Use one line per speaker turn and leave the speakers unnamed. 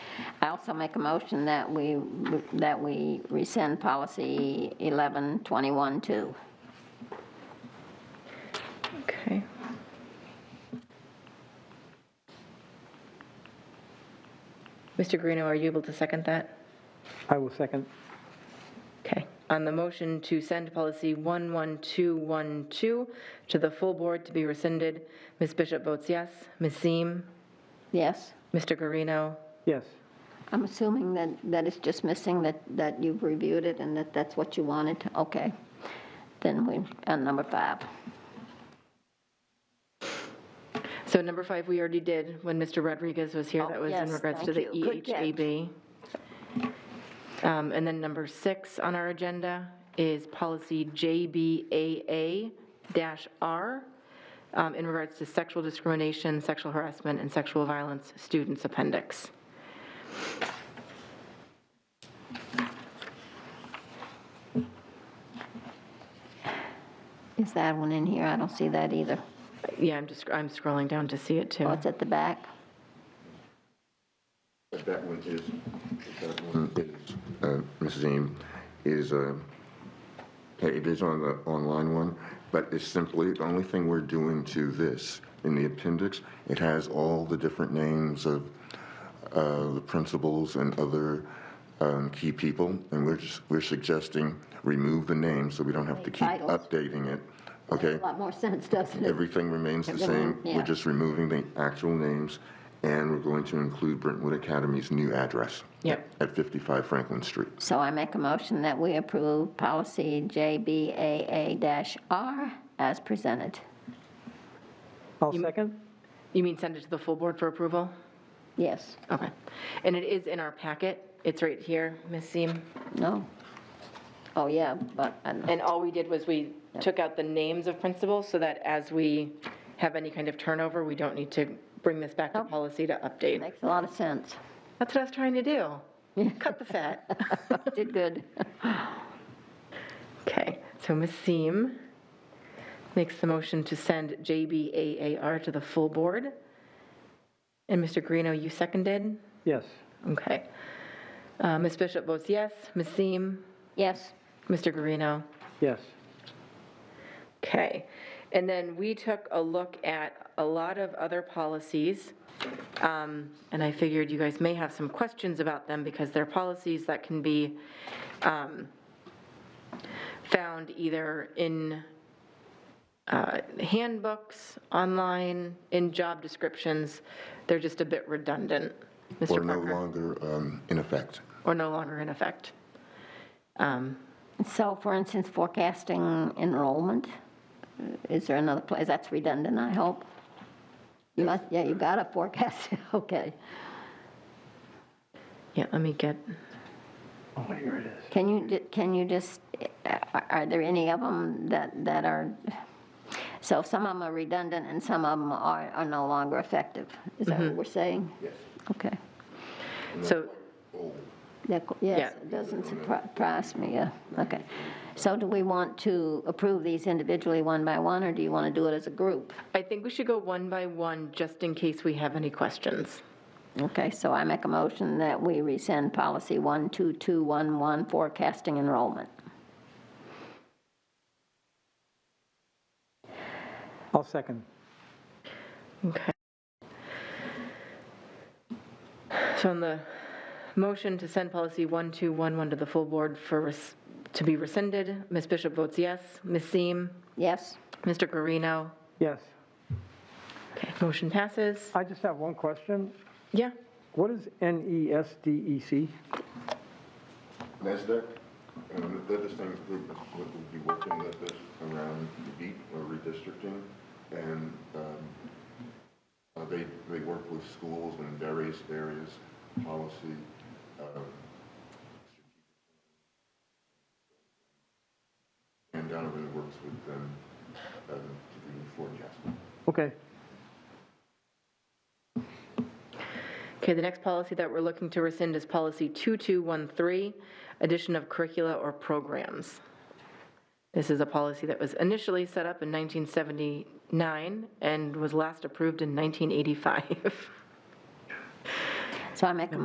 also make a motion that we, that we rescind policy 1121-2.
Okay. Mr. Greeno, are you able to second that?
I will second.
Okay. On the motion to send policy 11212 to the full board to be rescinded, Ms. Bishop votes yes. Ms. Seem,
Yes?
Mr. Guarino,
Yes,
I'm assuming that, that it's just missing that, that you've reviewed it and that that's what you wanted? Okay. Then we, on number five.
So number five, we already did when Mr. Rodriguez was here.
Oh,
That was in
yes,
regards to the E
thank you. Good catch.
EHAB. Um, And then number six on our agenda is policy JBAA-R um, in regards to sexual discrimination, sexual harassment, and sexual violence students appendix.
Is that one in here? I don't see that either.
Yeah, I'm just, I'm scrolling down to see it too.
Oh, it's at the back?
That one is, that one is, uh, Mrs. Eames, is, uh, it is on the online one, but it's simply, the only thing we're doing to this, in the appendix, it has all the different names of uh, the principals and other um, key people, and we're just, we're suggesting remove the names so we don't have to keep
Titles.
updating it, okay?
A lot more sense, doesn't it?
Everything remains the same.
Everyone, yeah.
We're just removing the actual names, and we're going to include Brentwood Academy's new address.
Yep.
At 55 Franklin Street.
So I make a motion that we approve policy JBAA-R as presented.
I'll second.
You mean send it to the full board for approval?
Yes?
Okay. And it is in our packet. It's right here, Ms. Seem.
No? Oh, yeah, but, I don't-
And all we did was we took out the names of principals so that as we have any kind of turnover, we don't need to bring this back to policy to update.
makes a lot of sense.
That's what I was trying to do. Cut the fat.
Did good.
Okay, so Ms. Seem makes the motion to send JBAAR to the full board. And Mr. Guarino, you seconded?
Yes,
Okay. Uh, Ms. Bishop votes yes. Ms. Seem?
Yes?
Mr. Guarino?
yes,
Okay, and then we took a look at a lot of other policies, um, and I figured you guys may have some questions about them because they're policies that can be um, found either in uh, handbooks, online, in job descriptions. They're just a bit redundant.
Or
Mr.
no
Parker?
longer um, in effect.
Or no longer in effect. Um,
So for instance, forecasting enrollment, is there another place, that's redundant, I hope? You must, yeah, you got to forecast, okay.
Yeah, let me get,
Oh,
Can you, ju- can you just, are are there any of them that, that are, so some of them are redundant and some of them are, are no longer effective? Is that what we're saying?
Yes.
Okay.
so,
That- Yes,
Yeah.
it doesn't surpri- surprise me, yeah, okay. So do we want to approve these individually one by one, or do you want to do it as a group?
I think we should go one by one, just in case we have any questions.
Okay, so I make a motion that we rescind policy 12211, forecasting enrollment.
I'll second.
Okay. So on the motion to send policy 1211 to the full board for, res- to be rescinded, Ms. Bishop votes yes. Ms. Seem?
Yes?
Mr. Guarino?
Yes.
Okay, motion passes.
I just have one question.
Yeah,
What is E NESDEC?
NASDAQ, um, they're the same group that would be working with us around the beat or redistricting, and um, uh, they, they work with schools in various areas, policy, um, and Donovan works with them um, to do forecasting.
Okay,
okay, the next policy that we're looking to rescind is policy 2213, addition of curricula or programs. This is a policy that was initially set up in 1979 and was last approved in 1985.
So I make a